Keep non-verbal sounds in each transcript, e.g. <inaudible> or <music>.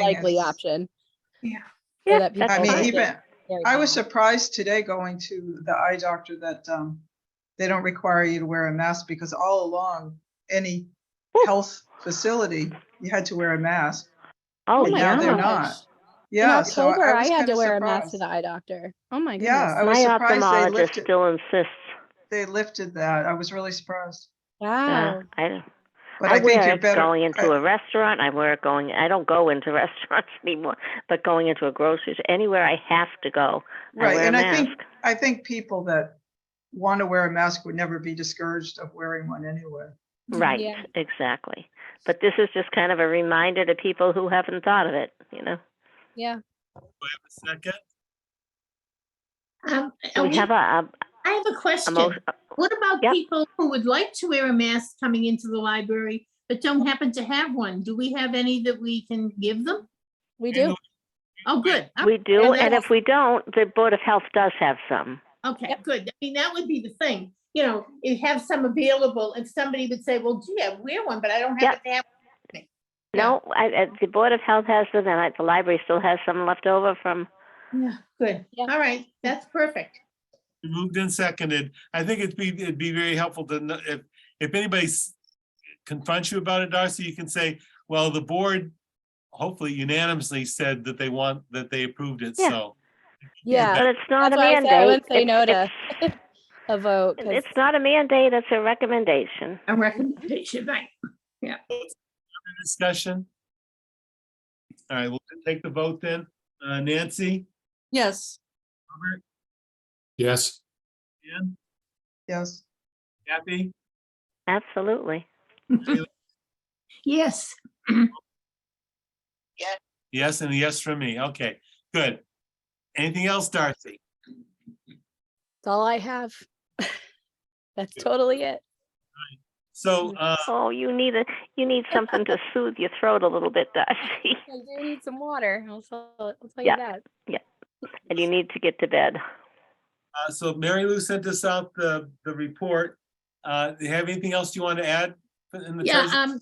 likely is- option. Yeah. so Yeah, that people that's I mean, might fine. even, get very I was calm. surprised today going to the eye doctor that um, they don't require you to wear a mask because all along, any health facility, you had to wear a mask. Oh, And my now they're gosh. not. In Yeah, so October, I I was had kind to of wear a mask to surprised. the eye doctor. Oh my Yeah, I was goodness. My surprised they ophthalmologist lifted- still insists. They lifted that. I was really surprised. Wow. Yeah, I don't. But I, I think wear you're it better. going into I- a restaurant. I wear it going. I don't go into <laughs> restaurants anymore, but going into a grocery store, anywhere I have to go, I Right, wear and a I mask. think, I think people that want to wear a mask would never be discouraged of wearing one anyway. right, Yeah. exactly. But this is just kind of a reminder to people who haven't thought of it. You know, Yeah. I have a second? Um, Do are we we- have a, a, I have a a question. mo- What about Yep. people who would like to wear a mask coming into the library but don't happen to have one? Do we have any that we can give them? We You do. know, Oh, good. Oh, we do, they and have- if we don't, the board of health does have some. Okay, Yep. good. I mean, that would be the thing, you know, you have some available and somebody would say, well, gee, I wear one, but I don't happen to have. Yeah. No, I, I, the board of health has them, and I, the library still has some left over from. Yeah, good. Yeah. All right, that's perfect. Moved and seconded. I think it'd be, it'd be very helpful to, kn- if, if anybody s- confronts you about it, Darcy, you can say, well, the board hopefully unanimously said that they want, that they approved it, Yeah. so. Yeah. But it's not a That's why I said I mandate. wouldn't say It's- no to- it's- A vote. 'cause It's not a mandate, it's a recommendation. A recommendation, right? Discussion? All right, we'll take the vote then. Uh, Nancy? Yes, Robert? Yes, Ann? Yes. Kathy? Absolutely. Yes. Yes, and a yes from me. Okay, good. Anything else, Darcy? That's all I have. <laughs> That's totally it. So, uh, Oh, you need a, you need something to soothe your throat a little bit, Darcy, <laughs> I do need some water. I'll tell, I'll tell you Yeah. that. and you need to get to bed. Uh, so Mary Lou sent us out the, the report. Uh, do you have anything else you want to add? in the Yeah, treasurer's- um,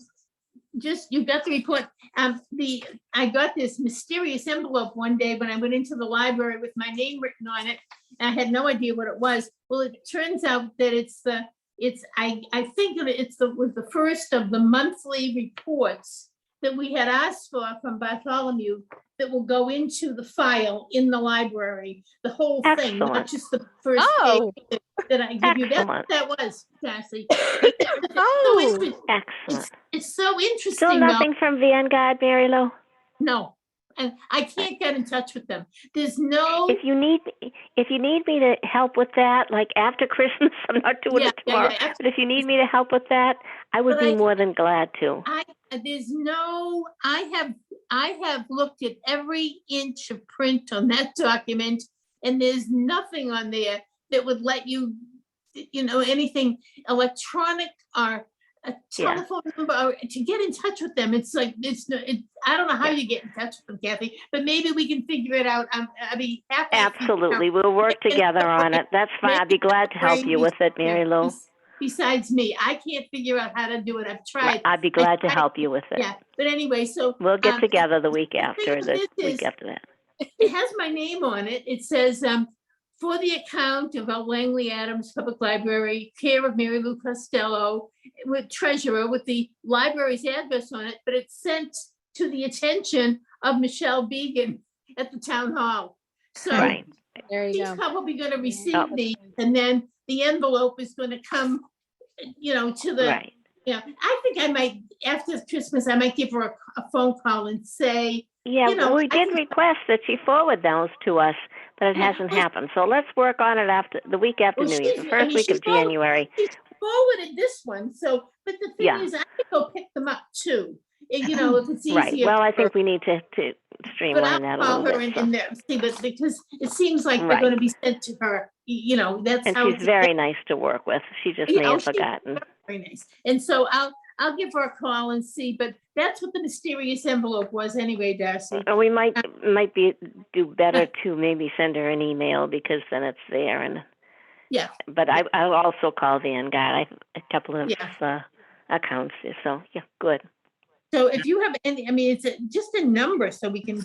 just, you got the report. Um, the, I got this mysterious envelope one day when I went into the library with my name written on it. and I had no idea what it was. Well, it turns out that it's the, it's, I, I think that it's the, was the first of the monthly reports that we had asked for from Bartholomew that will go into the file in the library, the whole thing, Excellent. not just the first Oh. page that I give you. That's Excellent. what that was, Darcy. <coughs> <coughs> So it's Oh, been- Excellent. it's so interesting. Still though. nothing from Vanguard, Mary Lou? No, and I can't get in touch with them. There's Oh. no. If you need, if you need me to help with that, like after <laughs> Christmas, I'm not doing Yeah, it yeah, yeah, tomorrow. abs- But if you need me to help with that, I would But be I- more than glad <laughs> to. I, there's no, I have, I have looked at every inch of print on that <laughs> document and there's nothing on there that would let you, you know, anything electronic or a Yeah. telephone number or to get in touch with them. It's like, it's, no- it, I don't know how Yeah. you get in touch with them, Kathy, but maybe we can figure it out. I'm, I'd be happy. if you- Absolutely, we'll <laughs> work together on it. That's fine. I'd be glad to help you with it, Mary Lou. Bes- Besides me, I can't figure out how to do it. I've tried. I'd be glad to I- help you with it. Yeah, but anyway, so We'll um, get together the week thing after, of the this is- week after that. it has my name on it. It says, um, for the account of L. Langley Adams Public Library, care of Mary Lou Costello, with treasurer with the library's address on it, but it's sent to the attention of Michelle Beegan at the town hall. So Right. there you He's go. probably gonna Oh. receive these, and then the envelope is gonna come, you know, to the, Right. yeah, I think I might, after Christmas, I might give her a, a phone call and say, Yeah, you well, know, we I did think- request that she forward those to us, but it Yeah, hasn't well- happened. So let's work on it after, the week after Well, New she's- Year's, the I first mean, week she's of all- January. she forwarded this one, so, but the Yeah. Mm-hmm. thing is, I could go pick them up too. and, You know, if it's easier. Right, well, I for her. think we need to, to But I'll streamline that a call little her and, bit. so- and then see, but because it seems like they're Right. gonna be sent to her, y- you know, that's And how. she's it's- very nice to work with. She just Yeah, may oh, have she's forgotten. Very nice. And so I'll, I'll give her a call and see, but that's what the mysterious envelope was anyway, Darcy. Or Uh, we might, might be, do better to maybe send her an email because then it's there and. Yeah. But I, I'll also call Vanguard. I, have a couple of, Yeah. uh, accounts, there, so, yeah, good. So if you have any, I mean, it's a- just a number so we can